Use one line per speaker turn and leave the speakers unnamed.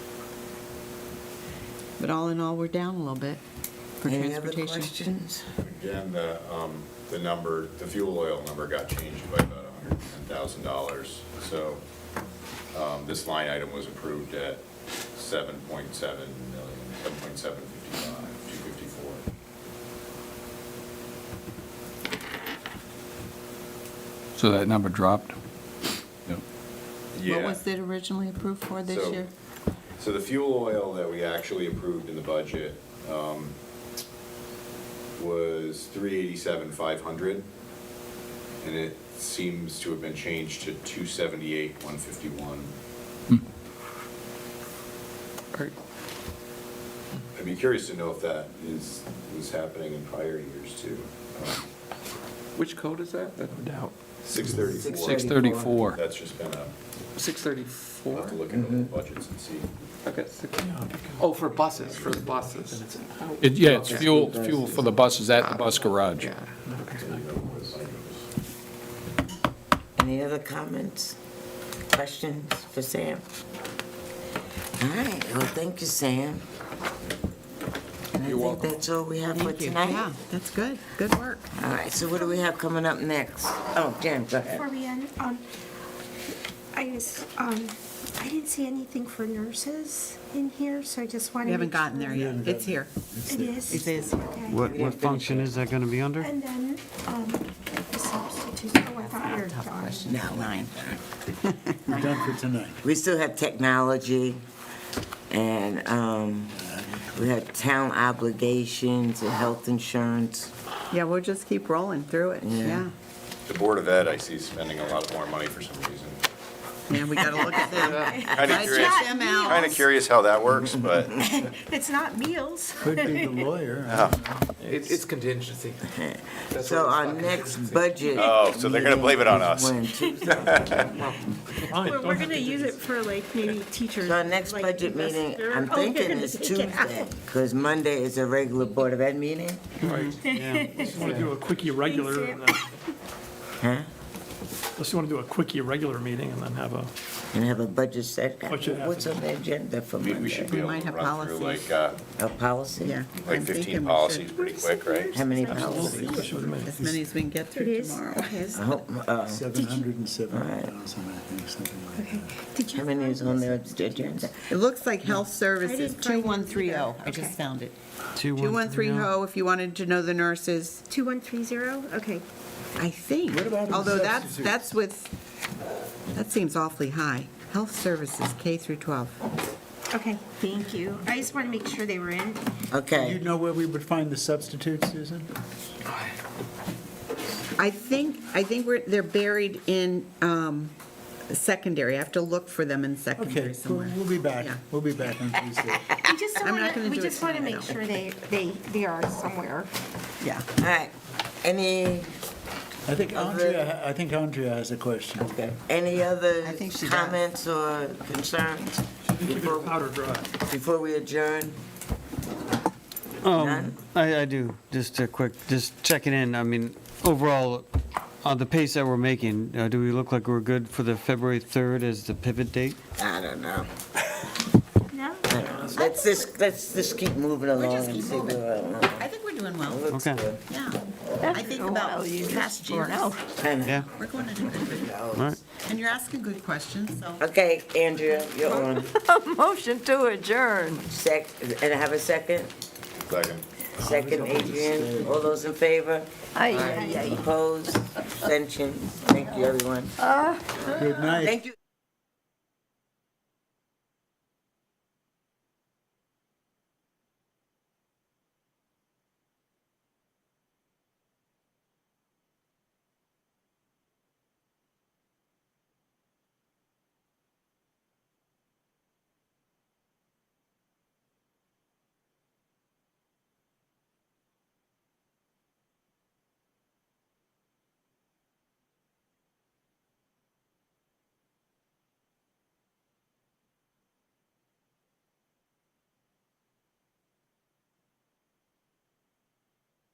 But all in all, we're down a little bit for
Any other
transportation.
questions?
Again, the, um, the number, the fuel oil number got changed by about hundred and ten thousand dollars. So, um, this line item was approved at seven point seven million, seven point seven fifty-five, two fifty-four.
So that number dropped? Yep.
What was it originally approved for this
So-
year?
So the fuel oil that we actually approved in the budget um, was three eighty-seven five hundred, and it seems to have been changed to two seventy-eight one fifty-one.
Hmm.
Or-
I'd be curious to know if that is, was happening in prior years too.
Which code is that? That-
Six thirty-four.
634.
That's just been a, we'll have to
634?
look into the budgets and see.
Okay, six- oh, for buses, for the buses.
It- Yeah, it's fuel, it's fuel for the buses at the bus garage.
Yeah.
Any other comments, questions for Sam? All right, well, thank you, Sam. And I
You're
think
welcome.
that's all we have for
Thank you. Yeah,
tonight.
that's good. Good work.
All right, so what do we have coming up next? Oh, Jen, go
Before
ahead.
we end, um, I just, um, I didn't see anything for nurses in here, so I just wanted.
We haven't gotten there yet. It's here.
It is.
It is.
Okay.
What, what function is that going to be under?
And then, um, the substitutes, oh, I thought you were done.
Nine.
We're done for tonight.
We still have technology, and um, we have town obligations and health insurance.
Yeah, we'll just keep rolling through it.
Yeah.
Yeah.
The Board of Ed, I see spending a lot more money for some reason.
Yeah, we gotta look at them.
Kind of
Gotta
curious,
check them out.
kind of curious how that works, but.
It's not meals.
Could be the lawyer.
It's it's contingency. That's
So
what it's
our
about,
next
contingency.
budget.
Oh, so they're gonna blame it on
meeting is
us.
when Tuesday.
We're, we're gonna use it for like maybe teachers.
So our next
like,
budget meeting,
investor-
I'm
Oh, they're
thinking
gonna
is
take it out.
Tuesday, because Monday is a regular Board of Ed meeting.
Unless you want to do a quick irregular, and then- unless you want to do a quick irregular meeting and then have a,
And have a budget set.
Budget after.
What's on the agenda for
We we should
Monday?
be
We
able
might
to
have
run through
policies.
like, uh,
A policy?
Yeah.
like
I'm thinking we
15
should-
policies pretty quick, right?
How many
Absolutely.
policies?
As many as we can get
It
through
is,
tomorrow.
okay.
I hope, uh,
Seven hundred and seventy thousand, I think, something like that.
Okay. Did you
How many
find
is on
this?
their agenda?
It looks like health services,
find it either.
2130. oh. I just
Okay.
found it.
Two, one, three, oh.
2130, if you wanted to know the nurses,
2130, okay.
I think.
What about
Although that's,
substitutes?
that's with, that seems awfully high. Health services, K through 12.
Okay, thank you. I just want to make sure they were in.
You
Okay,
know where we would find the substitutes, Susan?
I think, I think we're, they're buried in um, secondary. I have to look for them in
Okay,
secondary
we'll
somewhere.
we'll be back.
Yeah.
We'll be back on Tuesday.
We just
I'm not
want
gonna
to, we
do it
just want to
tonight,
make
no.
sure they, they, they are somewhere.
Yeah.
all right. Any,
I think Andrea, I think Andrea has a question.
any other
I think she does.
comments or concerns
Either
before,
powder dry.
before we adjourn?
Um, I, I do, just a quick, just checking in, I mean, overall, on the pace that we're making, uh, do we look like we're good for the February 3rd as the pivot date?
I don't know.
No?
Let's just, let's just keep moving along
just
and
keep
see where
moving.
we're at.
I think we're doing well.
Looks
Okay.
good.
Yeah. I think about past years.
And-
Yeah,
We're going in a good
all right.
And you're asking good questions, so.
Okay, Andrea, you're on.
Motion to adjourn.
Sec, and I have a second?
Second.
Second, Adrian, all those in favor?
Aye.
Opposed, abstentions, thank you, everyone.
Good night.
Thank you.